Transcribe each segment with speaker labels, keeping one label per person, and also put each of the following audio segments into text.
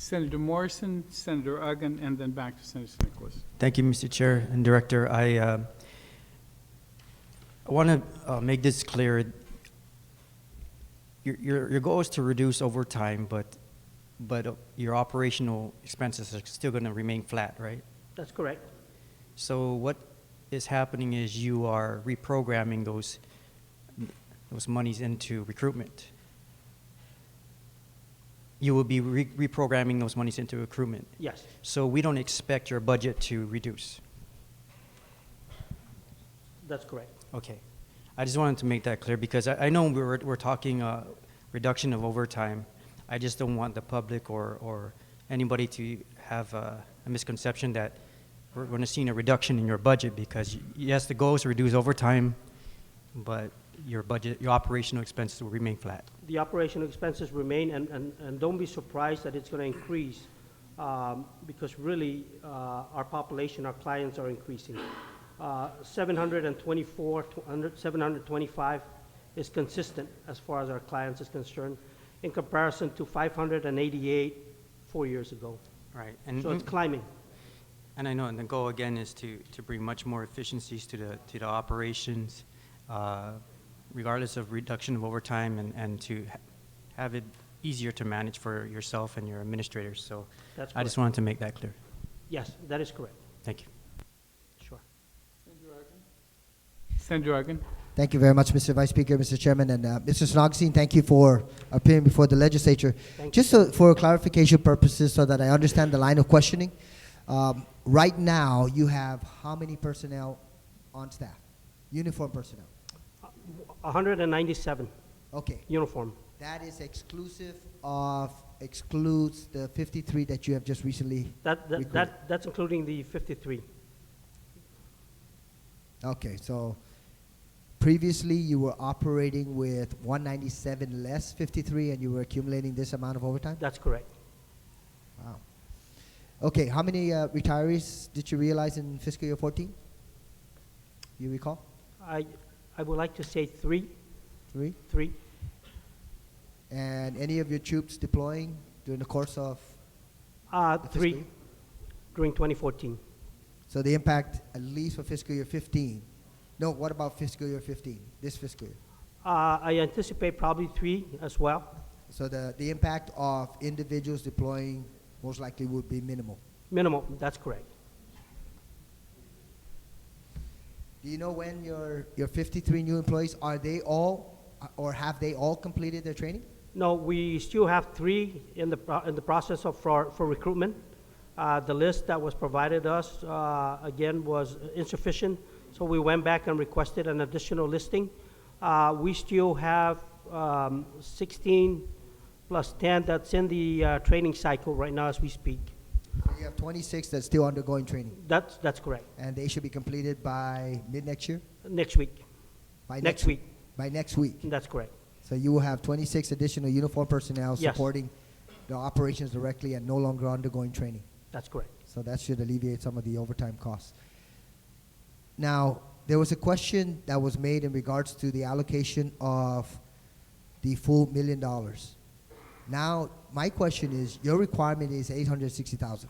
Speaker 1: Senator Morrison, Senator Uggan, and then back to Senator Nicholas.
Speaker 2: Thank you, Mr. Chair and Director. I, uh, I want to uh, make this clear. Your, your, your goal is to reduce over time, but, but uh, your operational expenses are still going to remain flat, right?
Speaker 3: That's correct.
Speaker 2: So what is happening is you are reprogramming those, those monies into recruitment. You will be re- reprogramming those monies into recruitment.
Speaker 3: Yes,
Speaker 2: So we don't expect your budget to reduce.
Speaker 3: that's correct.
Speaker 2: Okay. I just wanted to make that clear because I, I know we were, we're talking uh, reduction of overtime. I just don't want the public or, or anybody to have uh, a misconception that we're going to see a reduction in your budget because, y- yes, the goal is to reduce overtime, but your budget, your operational expenses will remain flat.
Speaker 3: The operational expenses remain, and, and, and don't be surprised that it's gonna increase, um, because really, uh, our population, our clients are increasing. Uh, seven hundred and twenty-four, seven hundred and twenty-five is consistent as far as our clients is concerned, in comparison to five hundred and eighty-eight four years ago.
Speaker 2: Right. And,
Speaker 3: So it's climbing.
Speaker 2: And I know, and the goal again is to, to bring much more efficiencies to the, to the operations, uh, regardless of reduction of overtime and, and to ha- have it easier to manage for yourself and your administrators. So
Speaker 3: That's
Speaker 2: I just
Speaker 3: correct.
Speaker 2: wanted to make that clear.
Speaker 3: Yes, that is correct,
Speaker 2: Thank you.
Speaker 3: sure.
Speaker 1: Senator Uggan?
Speaker 4: Thank you very much, Mr. Vice Speaker, Mr. Chairman, and uh, Mr. Snogstein. Thank you for appearing before the legislature.
Speaker 3: Thank
Speaker 4: Just so, for clarification purposes, so that I understand the line of questioning, um, right now you have how many personnel on staff? Uniform personnel.
Speaker 3: Uh, hundred and ninety-seven,
Speaker 4: Okay,
Speaker 3: uniform,
Speaker 4: that is exclusive of excludes the 53 that you have just recently.
Speaker 3: that, that,
Speaker 4: Recruit.
Speaker 3: that, that's including the fifty-three.
Speaker 4: Okay, so previously you were operating with 197 less 53, and you were accumulating this amount of overtime.
Speaker 3: That's correct.
Speaker 4: Wow. Okay, how many uh, retirees did you realize in fiscal year 14? You recall?
Speaker 3: I, I would like to say three,
Speaker 4: Three?
Speaker 3: three.
Speaker 4: And any of your troops deploying during the course of,
Speaker 3: Uh,
Speaker 4: The
Speaker 3: three
Speaker 4: fiscal?
Speaker 3: during 2014.
Speaker 4: so the impact at least for fiscal year 15? No, what about fiscal year 15, this fiscal year?
Speaker 3: Uh, I anticipate probably three as well.
Speaker 4: So the, the impact of individuals deploying most likely would be minimal.
Speaker 3: Minimum, that's correct.
Speaker 4: Do you know when your, your 53 new employees, are they all, or have they all completed their training?
Speaker 3: No, we still have three in the, pro- in the process of, for, for recruitment. Uh, the list that was provided us, uh, again, was insufficient, so we went back and requested an additional listing. Uh, we still have, um, 16 plus 10 that's in the, uh, training cycle right now as we speak.
Speaker 4: So you have 26 that's still undergoing training.
Speaker 3: That's, that's correct.
Speaker 4: and they should be completed by mid next year.
Speaker 3: Next week.
Speaker 4: By
Speaker 3: Next week,
Speaker 4: By next week.
Speaker 3: that's correct.
Speaker 4: So you will have 26 additional uniform personnel
Speaker 3: Yes.
Speaker 4: supporting the operations directly and no longer undergoing training.
Speaker 3: That's correct.
Speaker 4: So that should alleviate some of the overtime costs. Now, there was a question that was made in regards to the allocation of the full million dollars. Now, my question is, your requirement is 860,000.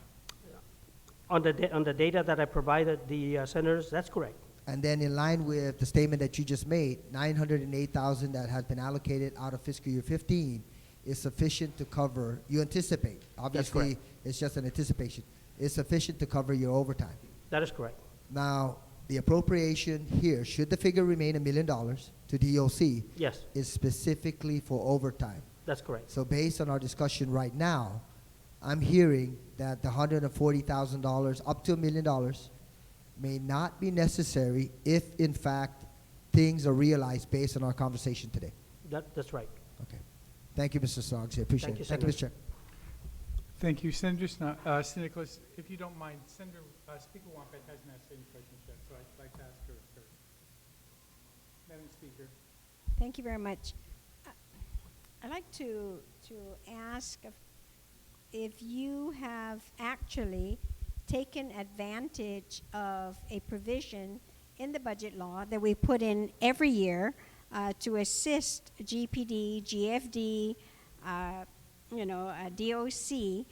Speaker 3: On the, da- on the data that I provided the uh, senators, that's correct.
Speaker 4: And then in line with the statement that you just made, nine hundred and eight thousand that has been allocated out of fiscal year fifteen is sufficient to cover, you anticipate, obviously,
Speaker 3: correct.
Speaker 4: it's just an anticipation, is sufficient to cover your overtime.
Speaker 3: That is correct.
Speaker 4: Now, the appropriation here, should the figure remain a million dollars to DOC,
Speaker 3: Yes,
Speaker 4: is specifically for overtime.
Speaker 3: that's correct.
Speaker 4: So based on our discussion right now, I'm hearing that the hundred and forty thousand dollars, up to a million dollars, may not be necessary if in fact things are realized based on our conversation today.
Speaker 3: That, that's right.
Speaker 4: Okay. Thank you, Mr. Soggs. I appreciate
Speaker 3: Thank
Speaker 4: it.
Speaker 3: you,
Speaker 4: Thank you, Mr.
Speaker 3: Senator.
Speaker 4: Chair.
Speaker 1: Thank you, Senator Sno- uh, Sir Nicholas. If you don't mind, Senator, uh, Speaker Wampat hasn't asked any questions yet, so I'd like to ask her first. Madam Speaker.
Speaker 5: Thank you very much. I- I'd like to, to ask if- if you have actually taken advantage of a provision in the budget law that we put in every year uh, to assist GPD, GFD, uh, you know, uh, DOC